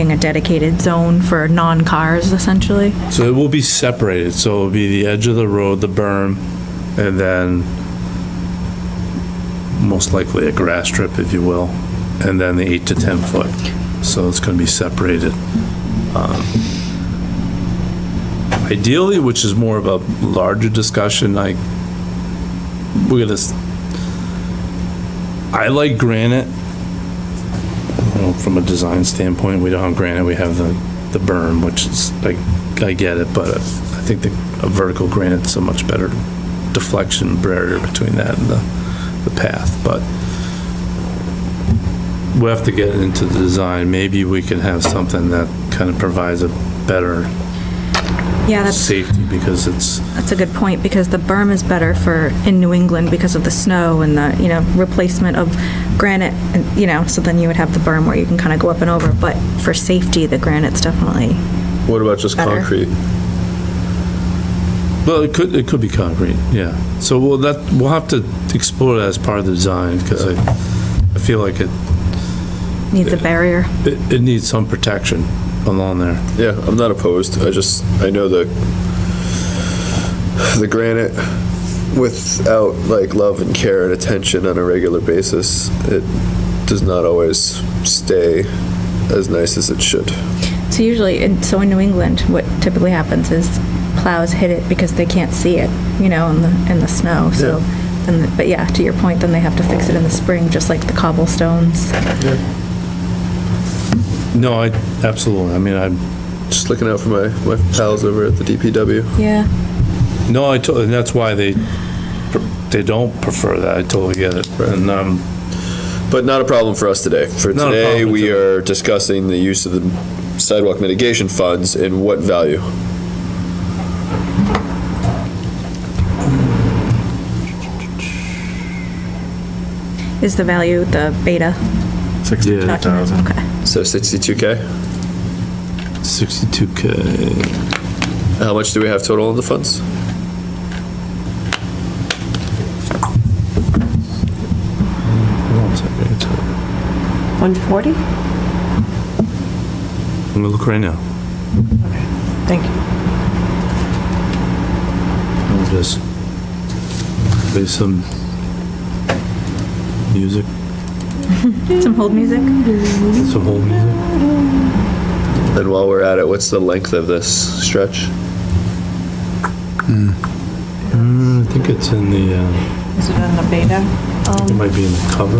creating a dedicated zone for non-cars essentially? So it will be separated, so it'll be the edge of the road, the berm, and then most likely a grass strip, if you will, and then the eight to 10 foot. So it's gonna be separated. Um, Ideally, which is more of a larger discussion, like, we're gonna, s- I like granite. You know, From a design standpoint, we don't have granite, we have the, the berm, which is, like, I get it, but I think the, a vertical granite's a much better deflection barrier between that and the the path, but we have to get into the design. Maybe we can have something that kind of provides a better Yeah, that's, safety because it's, that's a good point because the berm is better for, in New England because of the snow and the, you know, replacement of granite, and, you know, so then you would have the berm where you can kind of go up and over, but for safety, the granite's definitely, What about just Better. concrete? well, it could, it could be concrete, yeah. So we'll, that, we'll have to explore that as part of the design because I, I feel like it, needs a barrier. it, it needs some protection along there. Yeah, I'm not opposed. I just, I know the, the granite without like love and care and attention on a regular basis, it does not always stay as nice as it should. So usually, in, so in New England, what typically happens is plows hit it because they can't see it, you know, in the, in the snow, so. Then, the- but yeah, to your point, then they have to fix it in the spring, just like the cobblestones. No, I, absolutely. I mean, I'm, Just looking out for my, my pals over at the DPW. Yeah. No, I totally, and that's why they, they don't prefer that. I totally get it. And, um, But not a problem for us today. For Not a today, problem we today. are discussing the use of the sidewalk mitigation funds and what value. Is the value the beta? document? Okay. So 62K. 62K. How much do we have total in the funds? One second. 140? I'm gonna look right now. Thank you. I'll just play some music, Some hold music? some whole music. And while we're at it, what's the length of this stretch? Mm, I think it's in the, uh, Is it on the beta? it might be in the cover.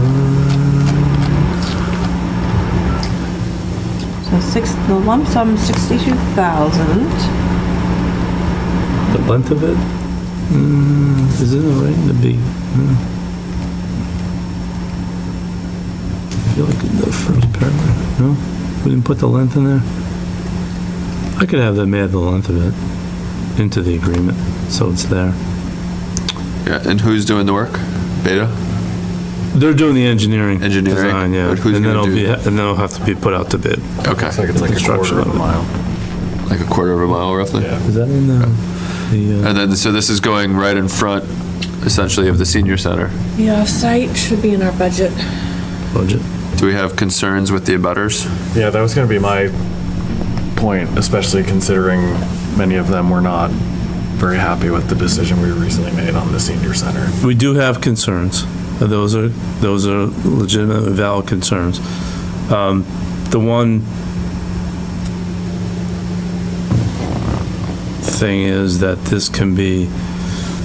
So six, the lump sum 62,000. The length of it? Mm, Is it right in the B? Hmm. I feel like in the first paragraph, no? We didn't put the length in there? I could have them add the length of it into the agreement, so it's there. Yeah, and who's doing the work? Beta? They're doing the engineering. Engineering? design, Yeah, But and who's then gonna it'll do- be, and then it'll have to be put out to bid. Okay. It's like a Construction quarter of of a it. mile. Like a quarter of a mile roughly? Is that in the, the, uh, And then, so this is going right in front essentially of the senior center. The off-site should be in our budget. Uh, budget? Do we have concerns with the abutters? Yeah, that was going to be my point, especially considering many of them were not very happy with the decision we recently made on the senior center. We do have concerns. Those are, those are legitimate and valid concerns. Um, The one thing is that this can be,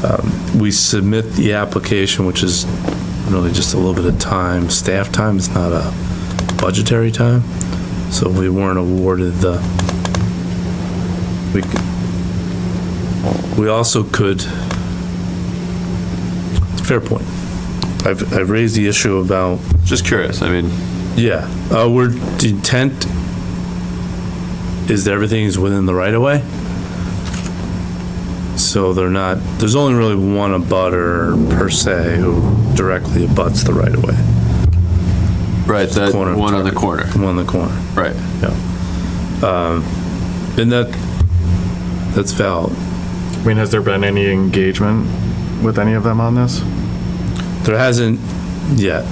um, we submit the application, which is really just a little bit of time, staff time, it's not a budgetary time. So we weren't awarded the, we, c- we also could, fair point. I've, I've raised the issue about Just curious, I mean, yeah, uh, we're, the intent is that everything is within the right of way. So they're not, there's only really one abutter per se who directly abuts the right of way, right, that Corner of Uh, one on the corner, the one in the corner. Um, right. And that, that's valid. I mean, has there been any engagement with any of them on this? There hasn't yet,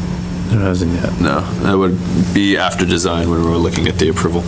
there hasn't yet. No, that would be after design when we were looking at the approval.